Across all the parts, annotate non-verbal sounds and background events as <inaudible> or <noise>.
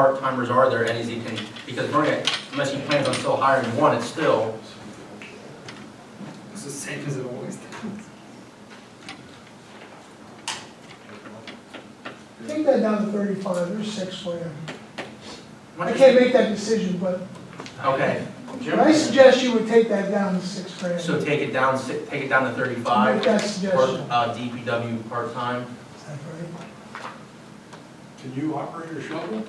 part-timers are there at NEZ can, because Bernie, unless he plans on still hiring one, it's still, It's the same as it always does. Take that down to thirty-five, there's six land. I okay. can't make that decision, but but I suggest you would take that down to six grand. So take it down, si- take it down to Make thirty-five, that or, suggestion. uh, DPW part-time. Is that right? Can you operate a shovel?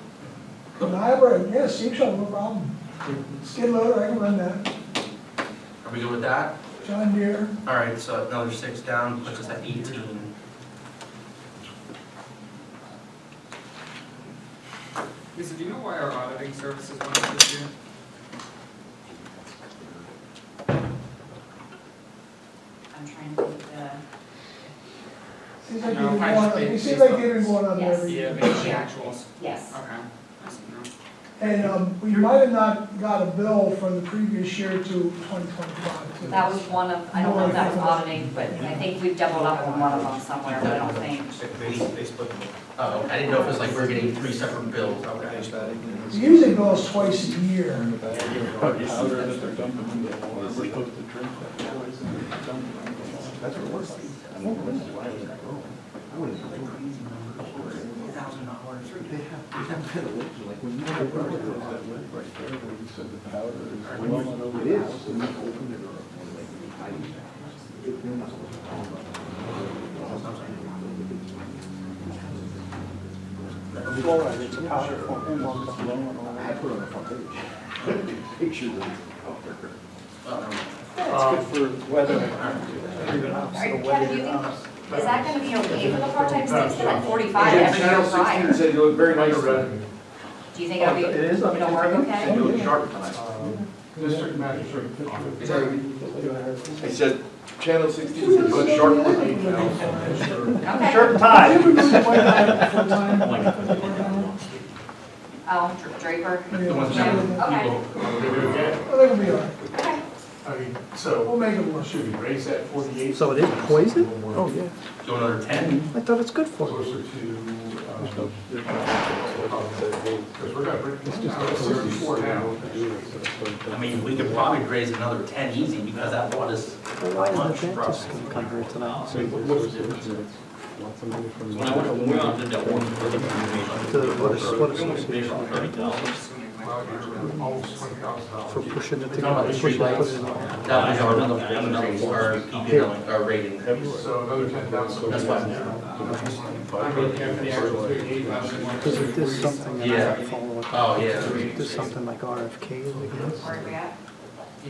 Can I run, yeah, steam shovel, no problem. Skid loader, I can run that. Are we good with that? John Deere, All right, so another six down, puts us at eighteen. Lisa, do you know why our auditing services went up this year? I'm trying to think, uh, seems like No, they've been I going, up- just made it seems these like up. they've been going up Yes. every year. Yeah, maybe the actuals. yes, Okay. That's- no. And, um, we might have not got a bill for the previous year to twenty twenty-five. too. that was one of, I don't know if that was auditing, but I think we've doubled up on one of them somewhere, but I don't think. They, they split them. Oh, I didn't know if it was like we're getting three separate bills, okay. It's Usually bills twice a year. Powder that they're dumping in the water, we hook the drink that poison, dump it in the water. That's what it works like. I mean, that's why I was like, oh, I wouldn't have like crazy numbers. Thousand dollars. They have, they have kind of lips, like when you open it, there's that lip right there, where you said the powder is well over the house, and you open it or like you hide it. You're not supposed to talk about Fluoride, it's a powder form, and on the flow and all it. I that. put it on the front page. Picture of it. um, It's good for weather. Kevin, you think, is that gonna be okay for the part-time since they're at forty-five Yeah, after Channel your sixteen prior? said you look very nice red. Do you think it'll be, It is, I mean, it'll work okay? You look sharp tonight. District manager. He said, channel sixteen said you look sharp tonight. Okay, I think we really went up <laughs> for one- uh, I oh, Dr- Draper, The ones that think we'll be all right. okay, I mean, so, We'll make it work. should we raise that forty-eight? So it is poison? Oh, yeah. do another ten, I thought it's good for you. Closer um, to, because we're gonna bring this down to thirty-four now. I mean, we could probably raise another ten easy, because that one is Why much is the for us. dentist gonna come here tonight? When I went to, we went to that one, we were like- To what is, what association Assuming Well, like- you're Almost twenty thousand for dollars. pushing it We're talking about the together? Pushing it together. streetlights, that was our another, another, our PPL, our rating. So another ten thousand. That's why I'm there. I'm looking at the actual thirty-eight thousand. Because if there's something that I Yeah. have to follow up. Oh, yeah. If there's something like RFK, like where are we at?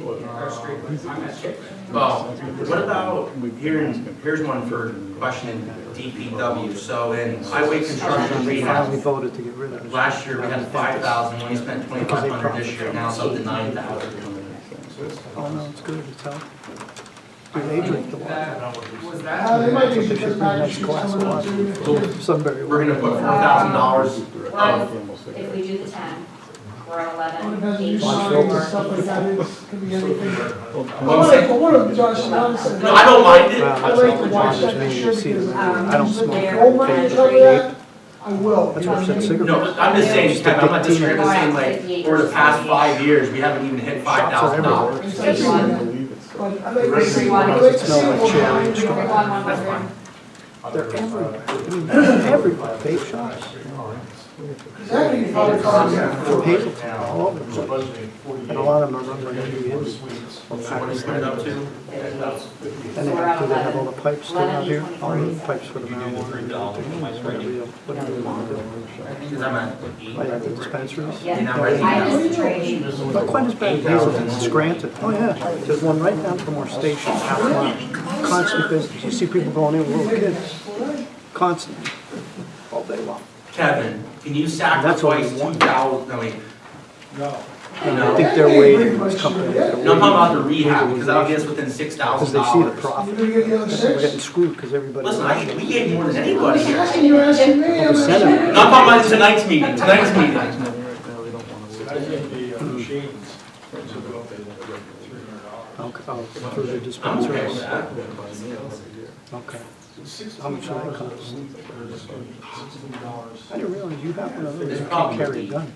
Our street, I'm at street. Well, what about, here, here's one for questioning DPW, so in highway construction Now we rehab, voted to get rid of it. last year we had five thousand, we only spent twenty-five hundred this year, now it's up to nine thousand. Oh, no, it's good, it's healthy. Do they drink the water? <laughs> That- Was Uh, that? they might be It should because be a nice package is glass of coming up water. Sunbury We're gonna water. put four thousand dollars of, Well, if we do the ten, we're at Oh, It eleven, depends on your eight, signs and four. stuff like that, it's, could be anything. I Well, like, I want Josh Johnson. no, I don't mind it, I like to watch that picture because. Um, I don't smoke. there Old money, and stuff like three. that, I will. That's worse than cigarettes. no, but I'm just saying, Kevin, I'm not disagreeing, I'm just saying like, over the past five years, we haven't even hit five thousand dollars. It's everywhere. But I like to see, Everyone. I like to see. Smell like what cherry kind of- Everyone one hundred. They're everywhere. I mean, everywhere. Vape shops, Exactly, you probably call it. Hazleton, all over the place. And a lot of them are run by Indians. So what do you put it up to? And they have, do they have all the pipes still out here? All the pipes for the marijuana? and everything, Whatever you want to do. Because I'm at eight. Like at the dispensaries? You're not Yes, ready I now. just trading. Not quite as bad as Hazelton, it's Scranton. Oh, yeah. There's one right down from our station, half a mile. Constant business. You see people going in, with little kids, constantly, all day long. Kevin, can you That's what we sacrifice two want. thousand, no, wait, And I think they're waiting for this company. They're no, I'm talking about waiting the rehab, because that'll get us within six Because thousand they see dollars. You're the profit. gonna get the other We're getting six? screwed because everybody. Listen, I, we gave more than anybody here. That's what you're asking me, I'm Well, the asking senator- you. No, I'm talking about tonight's meeting, tonight's meeting. I think the uh, machines, which is what they look like, three hundred dollars. Oh, oh, through I'm okay the with dispensaries. that. Okay. How much will it cost? I didn't realize you have one of those, It's you can probably carry a the- gun.